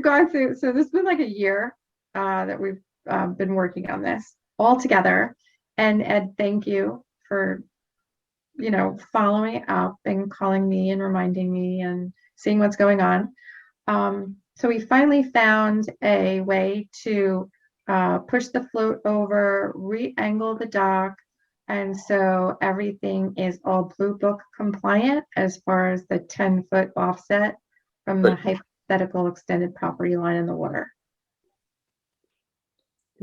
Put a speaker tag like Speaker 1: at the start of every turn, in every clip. Speaker 1: gone through, so this has been like a year uh, that we've um, been working on this all together. And Ed, thank you for, you know, following up and calling me and reminding me and seeing what's going on. Um, so we finally found a way to uh, push the float over, re-angle the dock. And so everything is all blue book compliant as far as the 10 foot offset from the
Speaker 2: Good.
Speaker 1: height hypothetical extended property line in the water.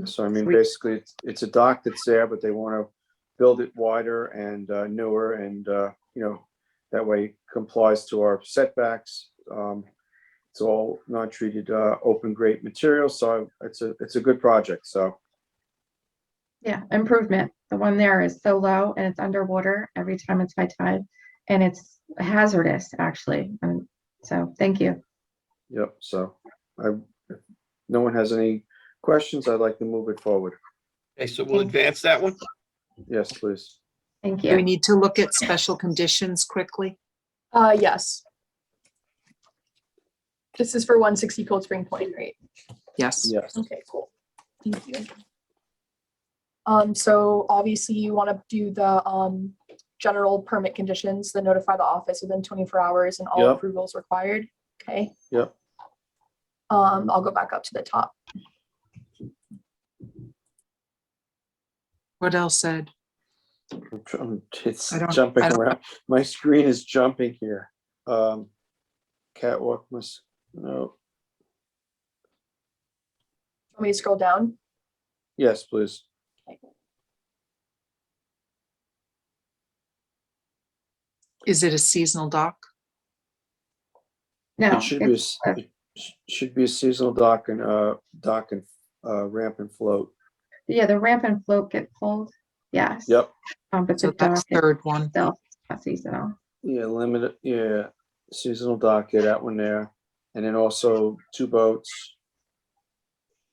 Speaker 2: So I mean,
Speaker 1: Sweet.
Speaker 2: basically, it's, it's a dock that's there, but they want to build it wider and uh, newer and, uh, you know, that way complies to our setbacks. Um, It's all non-treated, uh, open grade material, so it's a, it's a good project, so.
Speaker 1: Yeah, improvement. The one there is so low and it's underwater every time it's high tide. And it's hazardous, actually. And so, thank you.
Speaker 2: Yep, so I, if no one has any questions, I'd like to move it forward.
Speaker 3: Okay, so we'll advance that one?
Speaker 2: Yes, please.
Speaker 1: Thank
Speaker 4: Do we
Speaker 1: you.
Speaker 4: need to look at special conditions quickly?
Speaker 5: Uh, yes. This is for one sixty Cold Spring Point, right?
Speaker 4: Yes.
Speaker 2: Yes.
Speaker 5: Okay, cool. Thank you. Um, so obviously you want to do the, um, general permit conditions, then notify the office within twenty-four hours and all
Speaker 2: Yep.
Speaker 5: approvals required, okay?
Speaker 2: Yep.
Speaker 5: Um, I'll go back up to the top.
Speaker 4: What else said?
Speaker 2: I'm tr- I'm- It's
Speaker 4: I don't-
Speaker 2: jumping
Speaker 4: I don't-
Speaker 2: around. My screen is jumping here. Um, Catwalk must, no,
Speaker 5: Want me to scroll down?
Speaker 2: yes, please.
Speaker 4: Is it a seasonal dock?
Speaker 1: No,
Speaker 2: It should be, a
Speaker 1: it's-
Speaker 2: s- it sh- should be a seasonal dock and, uh, dock and, uh, ramp and float.
Speaker 1: yeah, the ramp and float get pulled. Yes.
Speaker 2: Yep,
Speaker 1: Um, but the
Speaker 4: So that's
Speaker 1: dock
Speaker 4: third one.
Speaker 1: itself, is not seasonal.
Speaker 2: yeah, limited, yeah, seasonal dock, yeah, that one there. And then also two boats.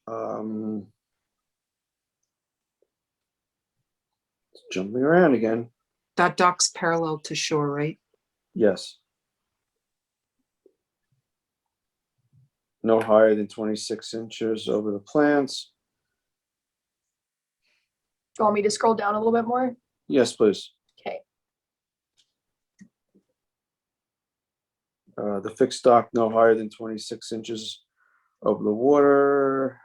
Speaker 2: Um. it's Jumping around again,
Speaker 4: That dock's parallel to shore, right?
Speaker 2: yes. No higher than twenty-six inches over the plants.
Speaker 5: Do you want me to scroll down a little bit more?
Speaker 2: Yes, please.
Speaker 5: Okay,
Speaker 2: Uh, the fixed dock no higher than twenty-six inches over the water.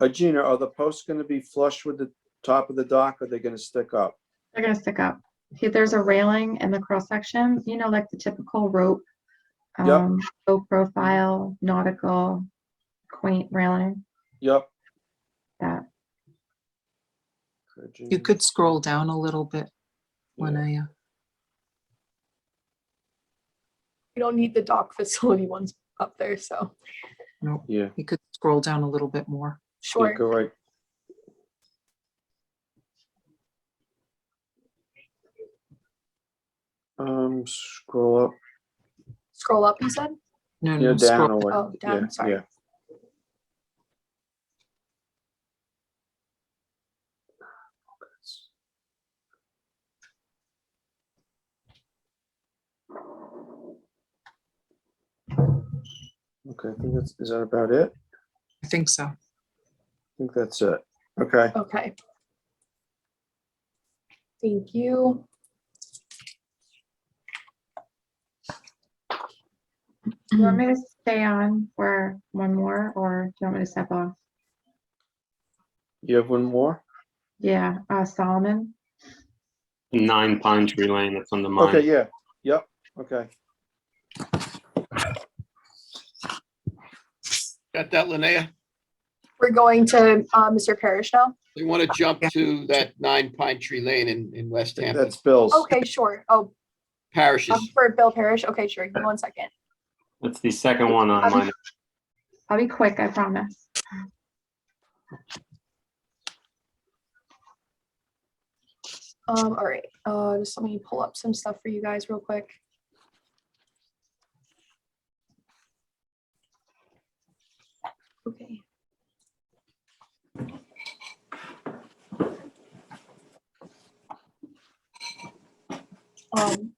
Speaker 2: Uh, Gina, are the posts gonna be flush with the top of the dock? Are they gonna stick up?
Speaker 1: They're gonna stick up. Here, there's a railing in the cross section, you know, like the typical rope.
Speaker 2: Yep.
Speaker 1: Um, low profile, nautical, quaint railing,
Speaker 2: Yep.
Speaker 1: that.
Speaker 2: Okay,
Speaker 4: You
Speaker 2: Gina.
Speaker 4: could scroll down a little bit when
Speaker 2: Yeah.
Speaker 4: I, uh,
Speaker 5: we don't need the dock facility ones up there, so,
Speaker 4: no,
Speaker 2: Yeah,
Speaker 4: you could scroll down a little bit more.
Speaker 2: yeah,
Speaker 5: sure.
Speaker 2: go right. Um, scroll up,
Speaker 5: Scroll up, you said?
Speaker 4: No,
Speaker 2: yeah,
Speaker 4: no,
Speaker 2: down
Speaker 4: scroll,
Speaker 2: or what?
Speaker 5: Oh, down,
Speaker 2: Yeah,
Speaker 5: sorry.
Speaker 2: yeah. Okay, I think that's, is that about it? I
Speaker 4: I think so.
Speaker 2: think that's it. Okay,
Speaker 5: Okay. Thank you.
Speaker 1: Do you want me to stay on for one more or do you want me to step off?
Speaker 2: you have one more?
Speaker 1: Yeah, uh, Solomon.
Speaker 6: Nine Pine Tree Lane, that's on the
Speaker 2: Okay,
Speaker 6: mine.
Speaker 2: yeah, yep, okay.
Speaker 3: Got that, Linnea?
Speaker 5: We're going to uh, Mr. Parrish now?
Speaker 3: They want to jump to that nine Pine Tree Lane in, in West Hampton,
Speaker 2: That's Bill's.
Speaker 5: Okay, sure. Oh, um,
Speaker 3: parishes.
Speaker 5: for Bill Parrish? Okay, sure. Give me one second.
Speaker 6: That's the second one on
Speaker 1: Okay.
Speaker 6: mine.
Speaker 1: I'll be quick, I promise.
Speaker 5: Um, all right, uh, just let me pull up some stuff for you guys real quick. Okay. Um,